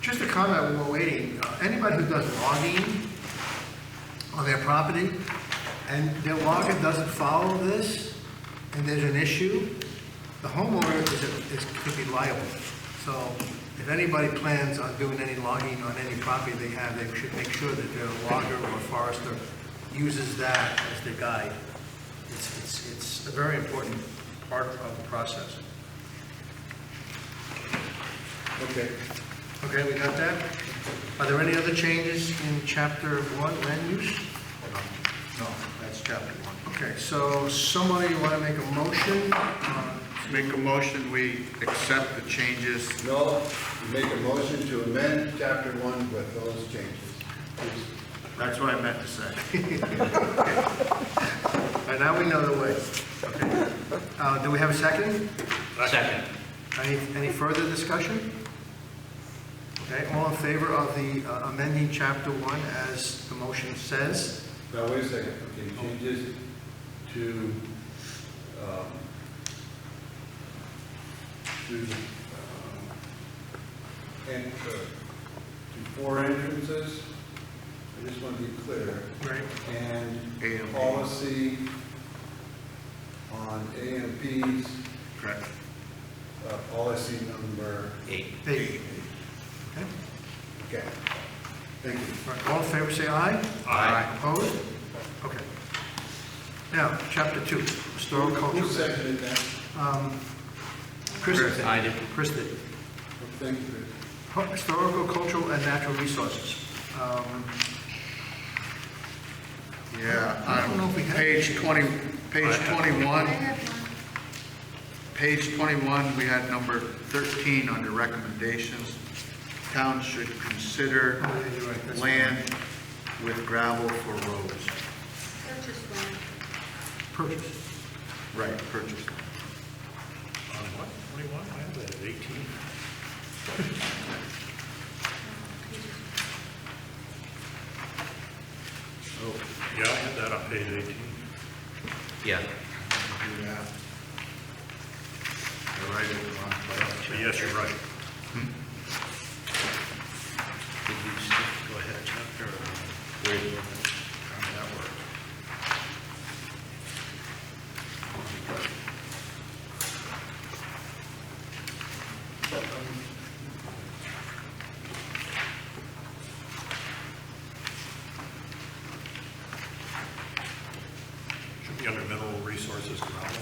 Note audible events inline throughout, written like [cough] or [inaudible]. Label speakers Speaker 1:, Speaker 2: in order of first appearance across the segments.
Speaker 1: Just a comment while we're waiting, Uh, anybody who does logging on their property, and their logger doesn't follow this, and there's an issue, the homeowner is, is, could be liable. So if anybody plans on doing any logging on any property they have, they should make sure that their logger or forester uses that as their guide. It's, it's, it's a very important part of the process.
Speaker 2: Okay.
Speaker 1: Okay, we got that? Are there any other changes in chapter one, land use? No, that's chapter one. Okay, so somebody want to make a motion? Uh,
Speaker 3: Make a motion, we accept the changes.
Speaker 2: No, you make a motion to amend chapter one with those changes.
Speaker 3: That's what I meant to say.
Speaker 1: All right, now we know the way. Okay. Uh, Do we have a second?
Speaker 4: [laughs] Second.
Speaker 1: Any, any further discussion? Okay, all in favor of the uh, amending chapter one as the motion says?
Speaker 2: Now, wait a second, okay, changes to, um, to, um, and, uh, to four entrances, I just want to be clear,
Speaker 1: Right.
Speaker 2: and
Speaker 3: AMP.
Speaker 2: policy on AMPs,
Speaker 3: Correct.
Speaker 2: uh, policy number,
Speaker 4: Eight.
Speaker 1: They- Okay.
Speaker 2: okay, thank you.
Speaker 1: All right, All in favor, say aye.
Speaker 4: Aye.
Speaker 1: Opposed? Okay. Now, chapter two, historical
Speaker 2: Who
Speaker 1: culture.
Speaker 2: seconded that?
Speaker 1: Um, Chris did.
Speaker 4: Chris, I did.
Speaker 1: Chris did.
Speaker 2: Thank you, Chris.
Speaker 1: Historical, cultural, and natural resources. Um,
Speaker 3: Yeah,
Speaker 1: I don't know if we
Speaker 3: um,
Speaker 1: have-
Speaker 3: page 20, page 21, page 21, we had number 13 under recommendations. Towns should consider
Speaker 1: Oh, yeah, you're right, that's fine.
Speaker 3: land with gravel for roads.
Speaker 5: Purchase one.
Speaker 1: Purchase.
Speaker 3: Right, purchase.
Speaker 4: On what, 21? I have that at 18.
Speaker 3: Oh,
Speaker 4: Yeah, I had that on page 18. Yeah.
Speaker 3: do that. I write it wrong, but I'll check.
Speaker 4: Yes, you're right. Did you see- go ahead, chapter?
Speaker 3: That works.
Speaker 4: Should be under mineral resources, gravel.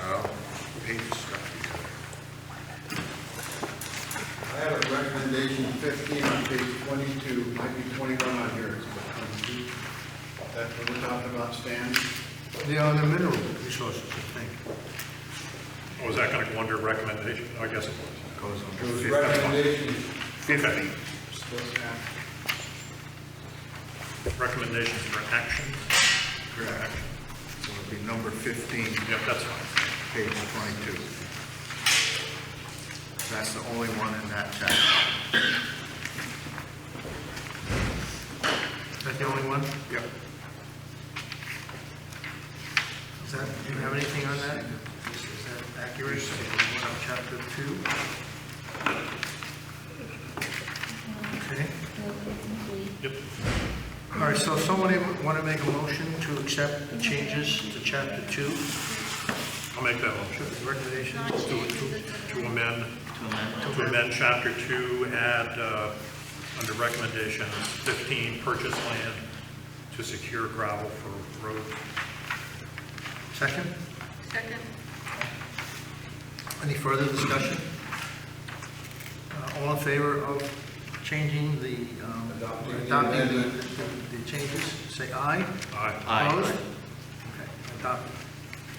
Speaker 3: Oh, pages stuck together.
Speaker 2: I have a recommendation fifteen on page twenty-two, might be twenty-one on yours, but uh, 22. That's what we're talking about, Stan?
Speaker 1: They are the mineral resources, I think.
Speaker 4: Oh, was that going to go under recommendation? Oh, I guess it was.
Speaker 3: Goes
Speaker 2: It was
Speaker 3: on
Speaker 2: recommendation,
Speaker 4: Fifty.
Speaker 2: supposed to have,
Speaker 4: Recommendations for action.
Speaker 3: correct. So it'd be number 15,
Speaker 4: Yep, that's fine.
Speaker 3: page 22. That's the only one in that chapter.
Speaker 1: Is that the only one?
Speaker 3: Yep.
Speaker 1: Is that, do you have anything on that? Is is that accurate? So, one on Chapter two? Okay.
Speaker 4: Yep.
Speaker 1: All right, so somebody want to make a motion to accept the changes to chapter two,
Speaker 4: I'll make that motion.
Speaker 1: the recommendation?
Speaker 5: Not changes,
Speaker 4: To amend, to
Speaker 1: To
Speaker 4: amend chapter two, add, uh, under recommendation 15, purchase land to secure gravel for road.
Speaker 1: Second?
Speaker 5: Second.
Speaker 1: Any further discussion? Uh, All in favor of changing the, um,
Speaker 2: Adopting the
Speaker 1: adopting the-
Speaker 2: amendment.
Speaker 1: the the changes, say aye.
Speaker 4: Aye. Aye.
Speaker 1: Opposed? Okay, adopted.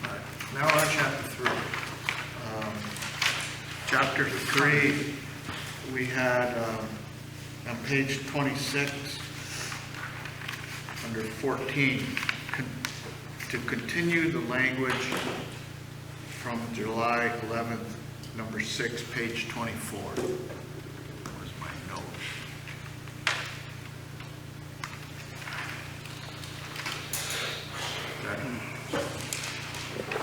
Speaker 1: All right, now we're on chapter three.
Speaker 3: Chapter 3, we had, um, on page 26, under 14, con- to continue the language from July 11th, number 6, page 24.